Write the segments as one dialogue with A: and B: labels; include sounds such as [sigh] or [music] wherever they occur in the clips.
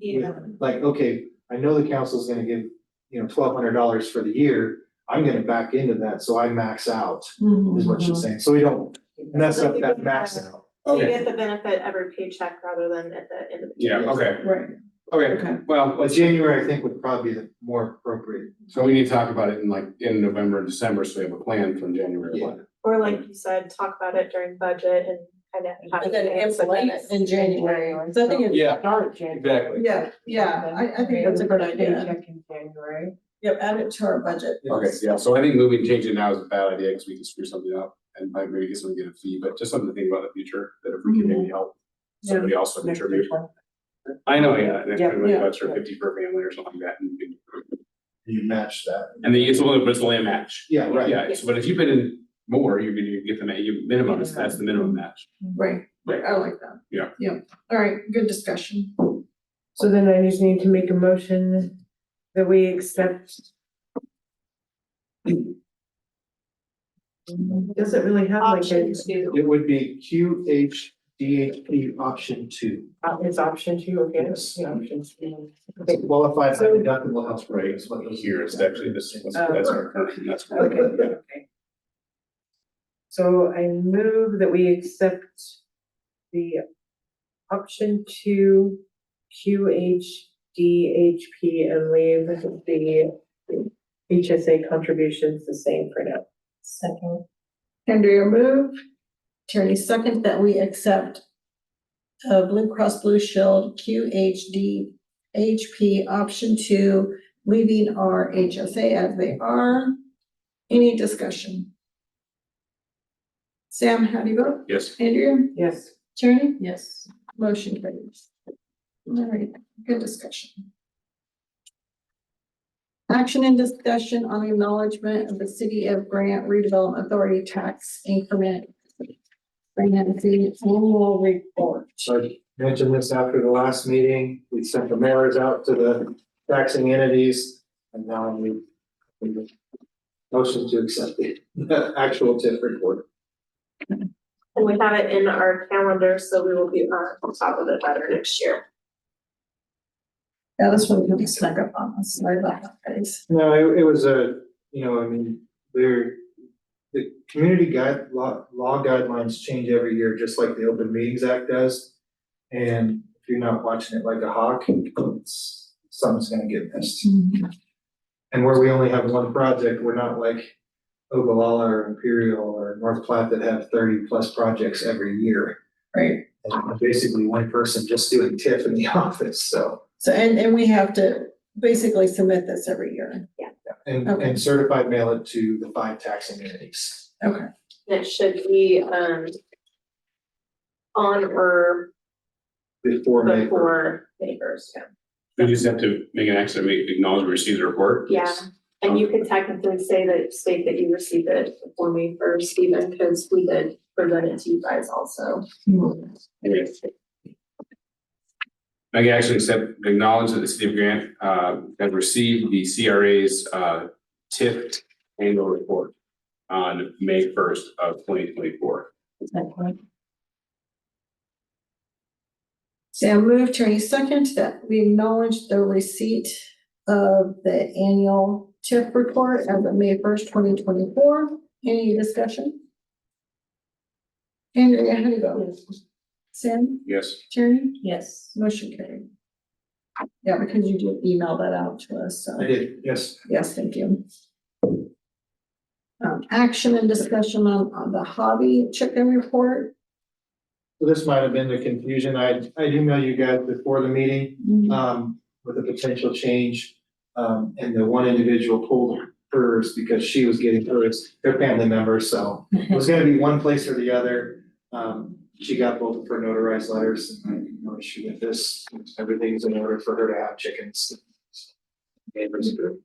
A: Yeah.
B: like, okay, I know the council's gonna give, you know, twelve hundred dollars for the year. I'm gonna back into that, so I max out,
C: Mm-hmm,
B: is what she's saying, so we don't mess up that max out.
A: So you
D: Okay,
A: get the benefit every paycheck rather than at the end of the.
D: yeah, okay,
C: mm-hmm.
E: Right,
D: okay,
E: okay,
D: well,
B: But
D: let's,
B: January, I think, would probably be the more appropriate.
D: so we need to talk about it in like, in November, and December, so we have a plan from January one.
A: Or like you said, talk about it during budget and kind of. have
C: And then
A: it as a
C: implement
A: bonus.
C: it in January. So I think it's.
D: Yeah,
C: Start January.
D: exactly.
E: yeah, yeah, I, I think that's a good idea.
C: Paycheck in January. Yep, add it to our budget.
D: Okay, yeah, so I think moving, changing now is a bad idea, because we can screw something up, and might maybe get someone to get a fee, but just something to think about in the future, that if we can maybe help somebody else to contribute. I know, yeah, and if
C: Yeah,
D: everybody
C: yeah,
D: bucks for
C: yeah.
D: fifty per family or something like that, and you can-
B: You match that.
D: and then it's only, but it's only a match.
B: Yeah, right.
D: Yeah, so- but if you've been in more, you're gonna get the, ma- you minimum, is- that's the minimum match.
E: Right, right, I like that.
D: Yeah.
E: Yeah, all right, good discussion.
F: So then I just need to make a motion that we accept. Doesn't really have like a,
A: Option two.
B: It would be Q H D H P option two.
F: it's uh, option two, okay?
B: Yes.
F: Yeah, option two.
B: It's Qualified by deductible health rate is what. those-
D: Here, it's actually, this, is-
B: Oh,
D: that's our current, and that's.
F: Okay,
D: current, yeah.
F: okay. So I move that we accept the option two QHDHP and leave the HSA contributions the same for now.
C: Second.
E: Andrea move,
C: Tierney, second that we accept uh, Blue Cross Blue Shield QHD HP option two, leaving our HSA as they are. Any discussion? Sam, how do you vote?
D: Yes,
C: Andrea?
F: Yes.
C: Tierney? Yes. Motion carries. All right, good discussion. Action and discussion on acknowledgement of the City of Grant Redevelopment Authority tax increment. Grant City annual report.
B: So I mentioned this after the last meeting, we sent the mailers out to the taxing entities, and now we. we Motion to accept the- the [laughs] actual TIF report.
A: And we have it in our calendar, so we will be uh, on top of it better next year.
C: Yeah, this one can be snuck up on us. Sorry about that, guys.
B: No, it, it was a, you know, I mean, there, the community guide, law, law guidelines change every year, just like the Open Meetings Act does. And if you're not watching it like a hawk, it's, something's gonna get missed. And where we only have one project, we're not like Ogallala or Imperial or North Platte that have thirty plus projects every year.
C: Right.
B: And basically one person just doing TIF in the [laughs] office, so.
C: So, and, and we have to basically submit this every year.
B: And,
C: Okay.
B: and certified mail it to the five taxing entities.
C: Okay.
A: And it should be, um, on or
B: Before May first.
A: before May first, yeah.
D: we just have to make an action, we acknowledge we received the report.
A: Yeah, and you could technically say that, state that you received it before May first, even because we did present it to you guys also.
D: Okay. I can actually accept, acknowledge that the city of Grant, uh, has received the CRA's, uh, TIP annual report on May first of twenty twenty-four.
C: Sam moved, Tierney second, that we acknowledge the receipt of the annual TIF report as of May first, twenty twenty-four. Any discussion? Andrea, how do you vote? Sam,
D: Yes,
C: Tierney,
F: Yes.
C: motion carried. Yeah, because you did email that out to us, so.
B: I did, yes.
C: Yes, thank you. Um, action and discussion on, on the hobby chicken report.
B: So This might have been the confusion. I, I emailed you guys before the meeting.
C: Mm-hmm.
B: um, with a potential change. Um, and the one individual pulled hers because she was getting hers, their family member, so it was gonna be one place or the other. Um, she got both of her notarized letters and I had no issue with this. Everything's in order for her to have chickens. Neighbors do.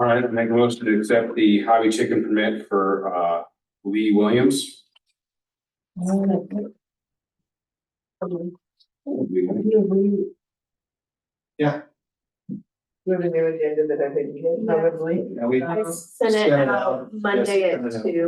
D: all right, I make a motion to accept the hobby chicken permit for, uh, Lee Williams. Lee Williams.
B: Yeah.
F: We have a new agenda that I didn't get, probably.
B: Now we
A: I sent it
B: Send it
A: out
B: out.
A: Monday
B: Yes,
A: at
B: send it out.
A: two.